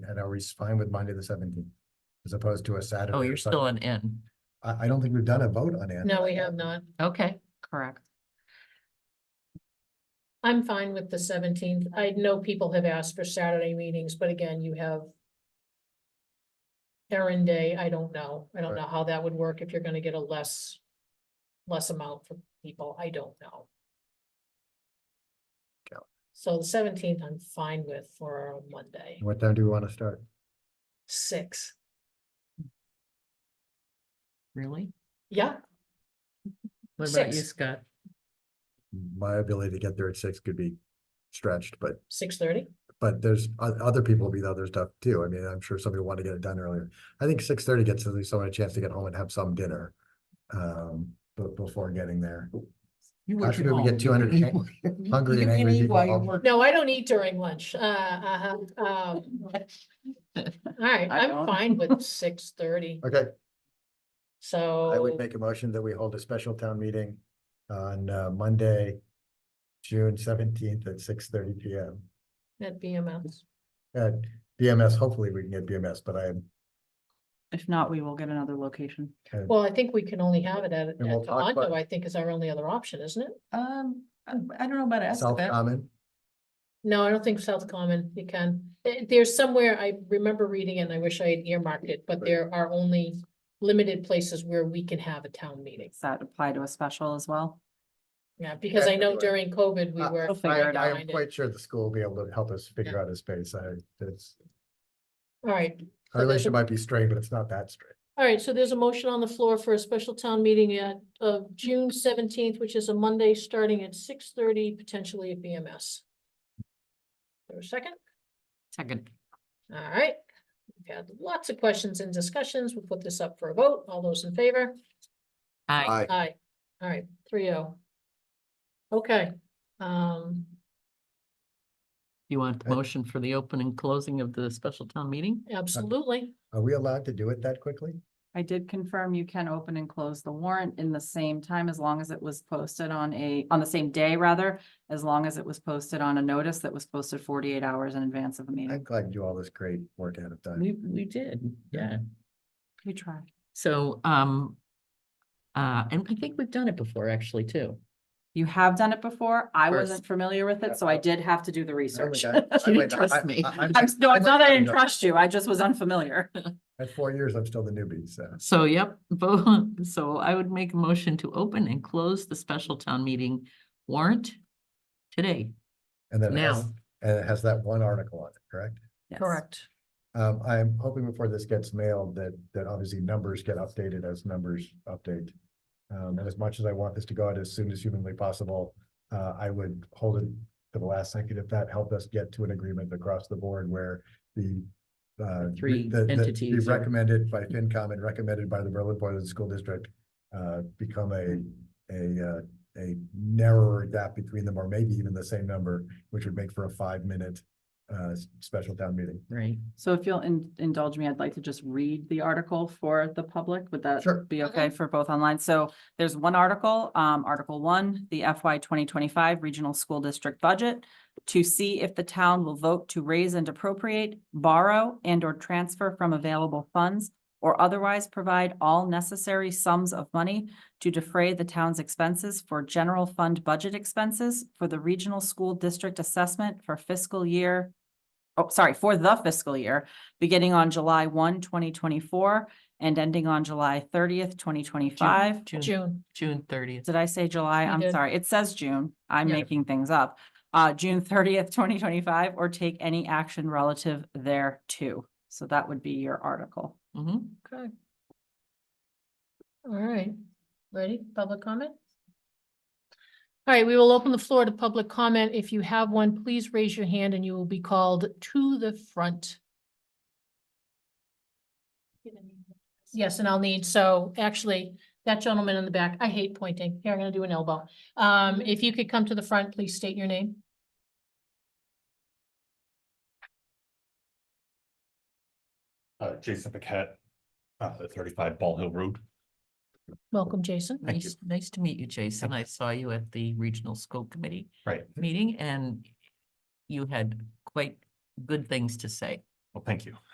are we fine with Monday the seventeenth? As opposed to a Saturday? Oh, or you're still Sunday? an N. I, I don't think we've done a vote on it. No, we have not. Okay, correct. I'm fine with the seventeenth. I know people have asked for Saturday meetings, but again, you have errand day, I don't know. I don't know how that would work if you're gonna get a less, less amount for people. I don't know. Okay. So the seventeenth, I'm fine with for a Monday, What time do we want to start? six. Really? Yeah, What about you, Six. Scott? My ability to get there at six could be stretched, but, six thirty. but there's, o- other people will be the other stuff too. I mean, I'm sure somebody will want to get it done earlier. I think six thirty gets at least someone a chance to get home and have some dinner. Um, but before getting there, You How work should at we home. get 200 You hang- can- hungry you and can angry eat people while you home? work. No, I don't eat during lunch. Uh, uh, uh, um, all right, I I'm don't. fine with six thirty, okay, so. I Oh. would make a motion that we hold a special town meeting on uh, Monday, June seventeenth at six thirty P M. At BMS. At BMS, hopefully we can get BMS, but I am, If not, we will get another location. kind of- Well, I think we can only have it at, at we'll talk about- Tohoto, I think is our only other option, isn't it? Um, I I don't know about South Escabet. Common, No, I don't think South Common, you can. Eh, There's somewhere, I remember reading and I wish I had earmarked it, but there are only limited places where we can have a town meeting. Does that apply to a special as well? Yeah, because I know Everywhere. during COVID, we Uh, were. I'll kind I, figure of I am behind it. quite sure the school will be able to help us figure out a space, I, it's, All right, our So there's a- relationship might be strained, but it's not that strained. all right, so there's a motion on the floor for a special town meeting at, of June seventeenth, which is a Monday, starting at six thirty, potentially at BMS. There a second? Second. All right, we've had lots of questions and discussions. We'll put this up for a vote. All those in favor? Aye. Aye. All right, three oh. Okay, um, You want the Aye. motion for the open and closing of the special town meeting? absolutely. Are we allowed to do it that quickly? I did confirm you can open and close the warrant in the same time as long as it was posted on a, on the same day rather, as long as it was posted on a notice that was posted forty-eight hours in advance of the I'm meeting. glad you do all this great work ahead of time. We, we did, yeah. We tried. So, um, uh, and I think we've done it before actually too. You have done it before. I First. wasn't familiar with Yeah, Oh it, so I- I did have to do the I went research. out- I You went out- trust I- me. I- I'm- I'm, s- no, it's not that I I'm didn't not- trust you. I just was unfamiliar. At four years, I'm still the newbie, so. So, yep, vote, so I would make a motion to open and close the special town meeting warrant today. And then it has, Now. and it has that one article on it, correct? Yes. Um, I'm hoping before this gets mailed that, that obviously numbers get updated as numbers update. Um, and as much as I want this to go out as soon as humanly possible, uh, I would hold it to the last second if that helped us get to an agreement across the board where the uh, The three the- the- the entities are- Recommended by FinCom and recommended by the Berlin Board of the School District, uh, become a, a, uh, a narrower gap between them, or maybe even the same number, which would make for a five-minute uh, s- special town meeting. Right, So if you'll in- indulge me, I'd like to just read the article for the public. Would that Sure. be okay for both online? So there's one article, um, Article One, the FY twenty twenty-five Regional School District Budget to see if the town will vote to raise and appropriate, borrow and or transfer from available funds or otherwise provide all necessary sums of money to defray the town's expenses for general fund budget expenses for the regional school district assessment for fiscal year oh, sorry, for the fiscal year, beginning on July 1, 2024, and ending on July thirtieth, twenty twenty-five. June, June, June thirtieth. Did I say July? You I'm did. sorry. It says June. I'm Yeah. making things up. Uh, June thirtieth, twenty twenty-five, or take any action relative thereto. So that would be your article. Mm-hmm, okay. all right. Ready, public comment? All right, we will open the floor to public comment. If you have one, please raise your hand and you will be called to the front. Yes, and I'll need, so actually, that gentleman in the back, I hate pointing. Here, I'm gonna do an elbow. Um, if you could come to the front, please state your name. Uh, Jason Paquette, uh, thirty-five Ball Hill Road. Welcome, Jason. Thank you. Nice, nice to meet you, Jason. I saw you at the Regional School Committee Right. meeting and you had quite good things to say. Well, thank you.